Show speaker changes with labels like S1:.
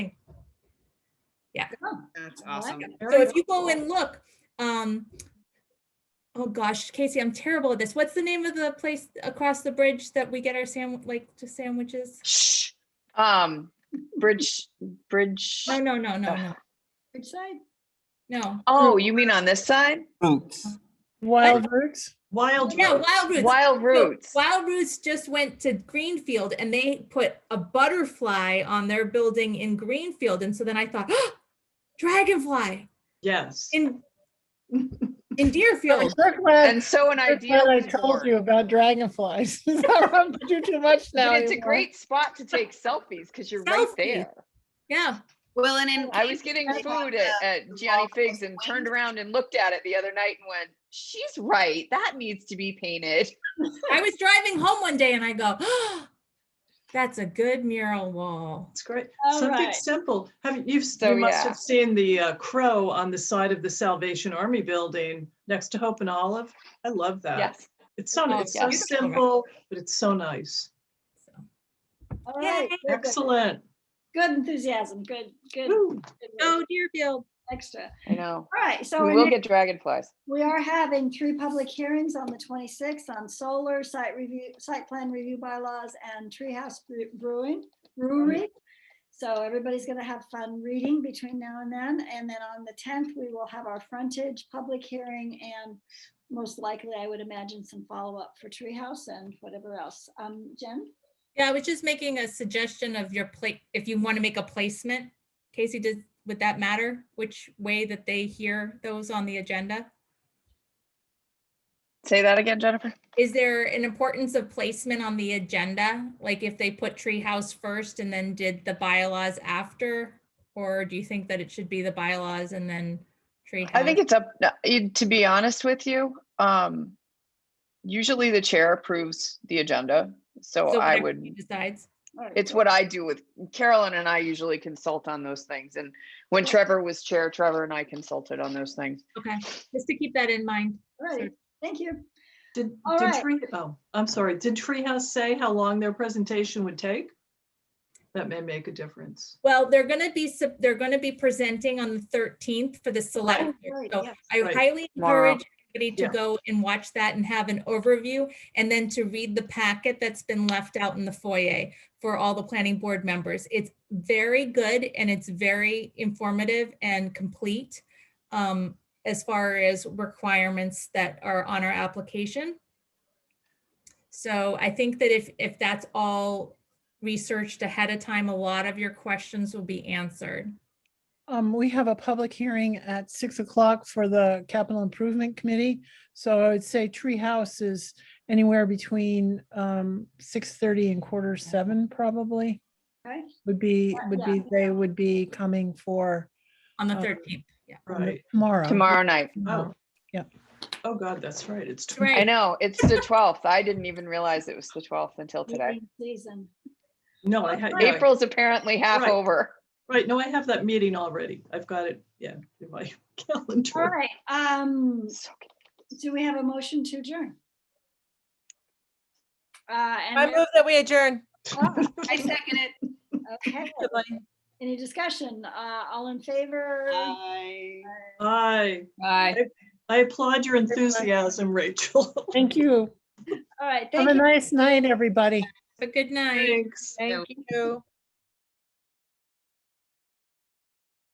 S1: Yeah.
S2: That's
S3: I like
S2: awesome.
S3: it.
S1: So
S3: Very
S1: if you go
S3: cool.
S1: and look, um, oh gosh, Casey, I'm terrible at this. What's the name of the place across the bridge that we get our sandwich, like to sandwiches?
S3: Shh. Um, bridge, bridge. uh,
S1: No, no, no, no, no,
S4: Which side?
S1: no.
S3: Oh, you mean on this side? Oh,
S5: Roots.
S6: Wild roots?
S7: Wild.
S1: No,
S7: Rose.
S1: Wild Roots.
S3: Wild
S1: So
S3: roots.
S1: Wild Roots just went to Greenfield and they put a butterfly on their building in Greenfield. And so then I thought, "Ah, dragonfly
S7: Yes.
S1: in, in Deerfield.
S6: I'm so glad,
S3: And so an
S6: so
S3: idea
S6: glad I
S3: was
S6: told
S3: born.
S6: you about dragonflies. I won't do too much now.
S3: But it's a
S6: anymore.
S3: great spot to take selfies because you're right
S1: Selfies.
S3: there.
S1: Yeah.
S2: Well, and in
S3: I was getting
S2: Case-
S3: food at, at Gianni Figs and turned around and looked at it the other night and went, she's right. That needs to be painted.
S1: I was driving home one day and I go, that's a good mural wall.
S7: It's great.
S4: All
S7: Something
S4: right.
S7: simple. Have you,
S3: So,
S7: you must
S3: yeah.
S7: have seen the uh, crow on the side of the Salvation Army building next to Hope and Olive. I love that.
S3: Yes.
S7: It's so,
S1: Oh,
S7: it's so
S1: yes.
S7: simple, but it's so nice.
S1: So,
S4: All
S1: Yay.
S4: right. Good, good.
S7: Excellent.
S4: Good enthusiasm, good, good.
S7: Woo.
S4: good
S1: Oh, Deerfield.
S4: Extra.
S3: I know.
S4: All right, so
S3: We
S4: our
S3: will
S4: next-
S3: get dragonflies.
S4: we are having three public hearings on the twenty-sixth on solar site review, site plan review bylaws and treehouse Bre- brewing, brewery. So everybody's gonna have fun reading between now and then. And then on the tenth, we will have our frontage public hearing and most likely, I would imagine some follow-up for treehouse and whatever else. Um, Jen?
S1: Yeah, I was just making a suggestion of your plate, if you want to make a placement. Casey, does, would that matter? Which way that they hear those on the agenda?
S3: Say that again, Jennifer.
S1: Is there an importance of placement on the agenda? Like if they put treehouse first and then did the bylaws after? Or do you think that it should be the bylaws and then treehouse?
S3: I think it's up, no, you- to be honest with you, um, usually the chair approves the agenda. So
S1: So
S3: I
S1: whatever
S3: would.
S1: he Decides.
S4: All right,
S3: It's
S4: so-
S3: what I do with Carolyn and I usually consult on those things. And when Trevor was chair, Trevor and I consulted on those things.
S1: Okay, just to keep that in mind.
S4: All right, thank you.
S7: Did,
S4: All
S7: did
S4: right.
S7: Tree, oh, I'm sorry. Did Treehouse say how long their presentation would take? That may make a difference.
S1: Well, they're gonna be, sub- they're gonna be presenting on the thirteenth for the select.
S4: Oh,
S1: year.
S4: right,
S1: So
S4: yes,
S1: I
S7: right.
S1: highly
S3: Tomorrow.
S1: encourage everybody to
S7: Yeah.
S1: go and watch that and have an overview and then to read the packet that's been left out in the foyer for all the planning board members. It's very good and it's very informative and complete um, as far as requirements that are on our application. So I think that if, if that's all researched ahead of time, a lot of your questions will be answered.
S6: Um, we have a public hearing at six o'clock for the capital improvement committee. So I would say treehouse is anywhere between um six thirty and quarter seven probably
S4: Okay.
S6: would be,
S4: Yeah,
S6: would
S4: yeah.
S6: be, they would be coming for
S1: On the
S6: Oh.
S1: 13th, yeah.
S7: Right.
S6: tomorrow.
S3: Tomorrow night.
S6: Tomorrow.
S7: Oh, God, that's right. It's tw-
S1: Right.
S3: I know, it's the twelfth. I didn't even realize it was the twelfth until today.
S4: Meeting Season.
S7: No, I had, yeah,
S3: April's apparently half
S7: Right.
S3: over.
S7: right. No, I have that meeting already. I've got it, yeah, in my
S4: All
S7: calendar.
S4: right, um,
S3: So good.
S4: do we have a motion to adjourn? Uh, and
S8: I move that we adjourn.
S4: I second it. Okay,
S8: Goodbye.
S4: any discussion? Uh, all in favor?
S2: Bye.
S7: Bye.
S3: Bye.
S7: I applaud your enthusiasm, Rachel.
S6: Thank you.
S4: All right,
S6: Have
S4: thank
S6: a
S4: you.
S6: nice night, everybody.
S1: Have a good night.
S7: Thanks.
S8: Thank you.